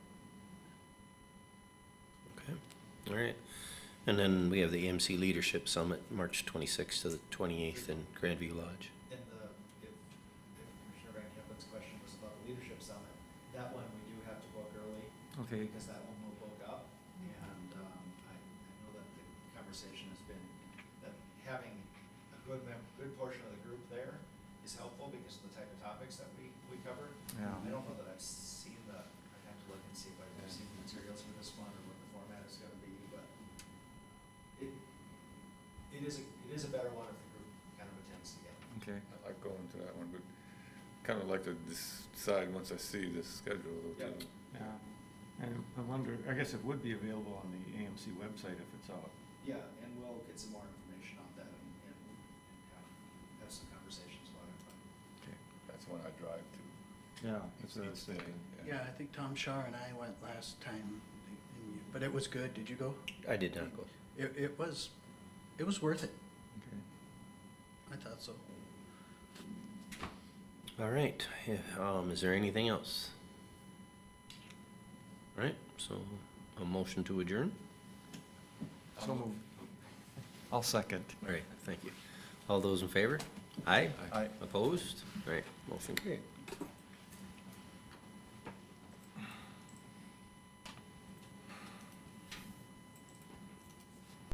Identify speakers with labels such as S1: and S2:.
S1: All right. And then we have the AMC Leadership Summit, March 26th to the 28th in Grandview Lodge.
S2: And the, if, if Commissioner Van Kempen's question was about the leadership summit, that one we do have to book early.
S3: Okay.
S2: Because that one will book up, and, um, I, I know that the conversation has been, that having a good mem, good portion of the group there is helpful because of the type of topics that we, we cover.
S3: Yeah.
S2: I don't know that I've seen the, I'd have to look and see if I've seen the materials for this one or what the format is gonna be, but it, it is, a- it is a better one if the group kind of attends together.
S3: Okay.
S4: I like going to that one, but kind of like to decide once I see the schedule.
S2: Yeah.
S3: Yeah. Um, And I wonder, I guess it would be available on the AMC website if it's out.
S2: Yeah, and we'll get some more information on that and, and and have- have some conversations about it. but-
S3: Okay.
S4: That's when I drive to.
S3: Yeah. That's what I
S4: each
S3: was
S4: day,
S3: thinking.
S5: Yeah, I think Tom Shaw and I went last time, and you- but it was good. Did you go?
S1: I did not go.
S5: It, it was, it was worth it.
S3: Okay.
S5: I thought so.
S1: All right. Yeah, Um, is there anything else? All right. So a motion to adjourn.
S3: So moved. I'll second.
S1: All right. Thank you. All those in favor? Aye.
S3: Aye.
S1: Opposed? All right. Motion carried.